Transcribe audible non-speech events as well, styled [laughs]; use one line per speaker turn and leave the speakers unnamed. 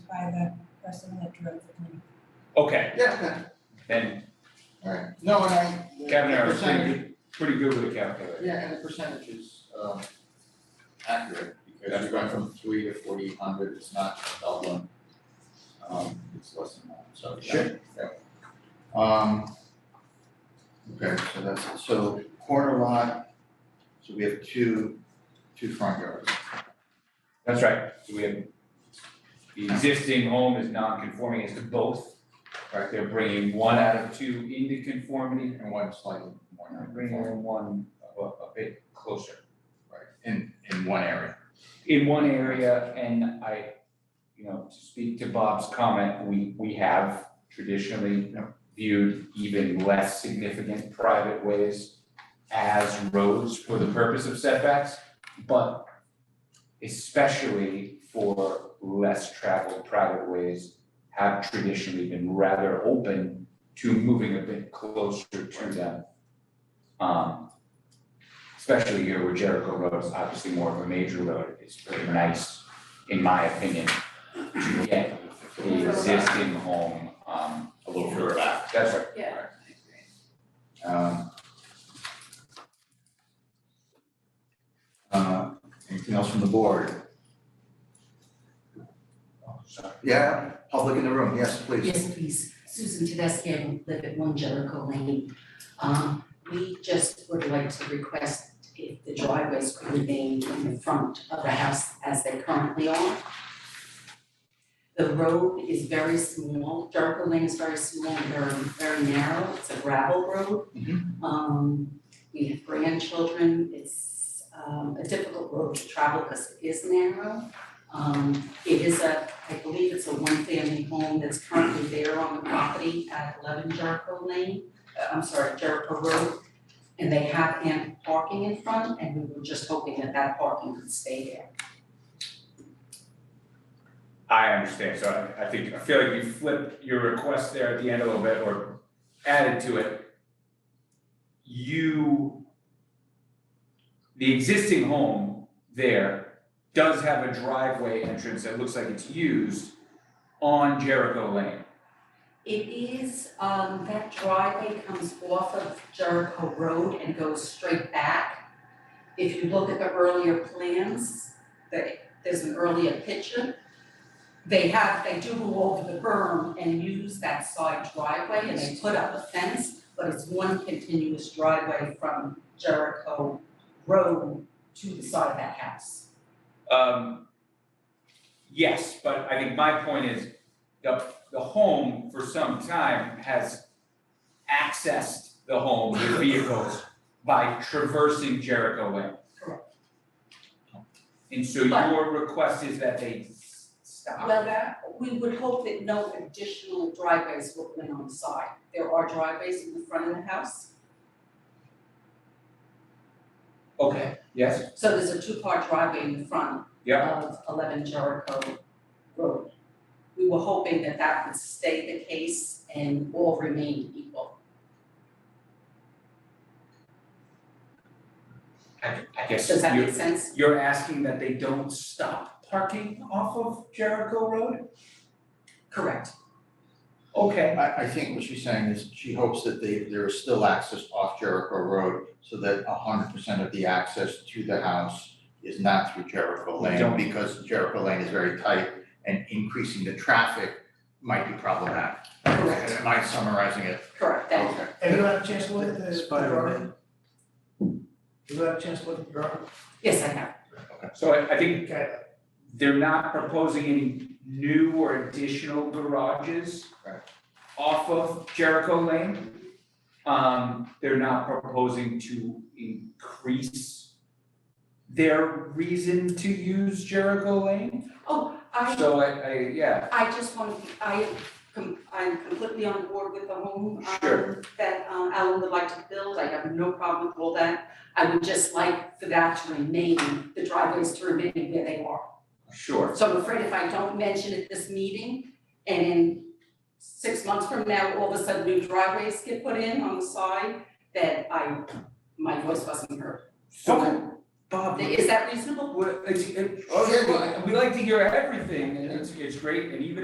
by the person that drove the plan.
Okay,
Yeah, okay,
then
alright, no, and I. the- the
Kevin and I are pretty
percentage-
good, pretty good with a calculator.
Yeah, and the percentage is um accurate, because we went from three to forty hundred, it's not doubling. Um, it's less than that, so. yeah,
Sure.
yeah. Um. Okay, so that's, so corner lot, so we have two, two front yards.
That's right, so we have, the existing home is non-conforming as to both. Right, they're bringing one out of two into conformity,
And one slightly more
and
narrow.
bringing one a, a bit closer.
Right, in in one area.
in one area, and I, you know, to speak to Bob's comment, we, we have traditionally
Yeah.
viewed even less significant private ways as roads for the purpose of setbacks, but especially for less traveled private ways have traditionally been rather open to moving a bit closer to them. Um, especially here where Jericho Road is obviously more of a major road, it's very nice, in my opinion, to get the existing home, um,
A little further back.
that's right.
Yeah.
Um. Uh, anything else from the board?
Sorry.
Yeah, public in the room, yes, please.
Yes, please. Susan Tedesco, live at One Jericho Lane. Um, we just would like to request if the driveways could remain in the front of the house as they currently are. The road is very small, Jericho Lane is very small, very, very narrow, it's a gravel road. Um, we have grandchildren, it's, um, a difficult road to travel because it is narrow. Um, it is a, I believe it's a one-family home that's currently there on the property at eleven Jericho Lane, uh, I'm sorry, Jericho Road. And they have ample parking in front, and we were just hoping that that parking could stay there.
I understand, so I, I think, I feel like you flipped your request there at the end a little bit, or added to it. You, the existing home there does have a driveway entrance that looks like it's used on Jericho Lane.
It is, um, that driveway comes off of Jericho Road and goes straight back. If you look at the earlier plans, there- there's an earlier picture. They have, they do go over the berm and use that side driveway and they put up a fence, but it's one continuous driveway from Jericho Road to the side of that house.
Um, yes, but I think my point is the, the home for some time has accessed the home
[laughs]
with vehicles by traversing Jericho Lane.
Correct.
And so your request is that they s- stop
Well,
that?
We would hope that no additional driveways will go in on the side. There are driveways in the front of the house.
Okay, yes,
So there's a two-car driveway in the front
yeah,
of eleven Jericho Road. We were hoping that that would stay the case and all remain equal.
I, I guess
Does that make
you're,
sense?
you're asking that they don't stop parking off of Jericho Road?
Correct.
Okay,
I I think what she's saying is she hopes that they there is still access off Jericho Road so that hundred percent of the access to the house is not through Jericho
We
Lane
don't-
because Jericho Lane is very tight and increasing the traffic might be problematic.
Correct,
Am I summarizing it?
correct, thank you.
Have you had a chance to look at the the
Spider-Man.
drawing? Have you had a chance to look at the drawing?
Yes, I have.
so I, I think
Okay,
They're not proposing any new or additional garages
Right.
off of Jericho Lane. Um, they're not proposing to increase their reason to use Jericho Lane.
I,
So I, I, yeah,
I just want, to I, com- I'm completely on board with the home um,
Sure.
that um, Alan would like to build. I have no problem with all that. I would just like for that to remain, the driveways to remain where they are.
sure.
So I'm afraid if I don't mention at this meeting, and in six months from now, all of a sudden new driveways get put in on the side, that I, my voice wasn't heard.
So Bob,
Is that reasonable?
what, it's, it-
Oh, yeah, well-
we like to hear everything and it's, it's great and even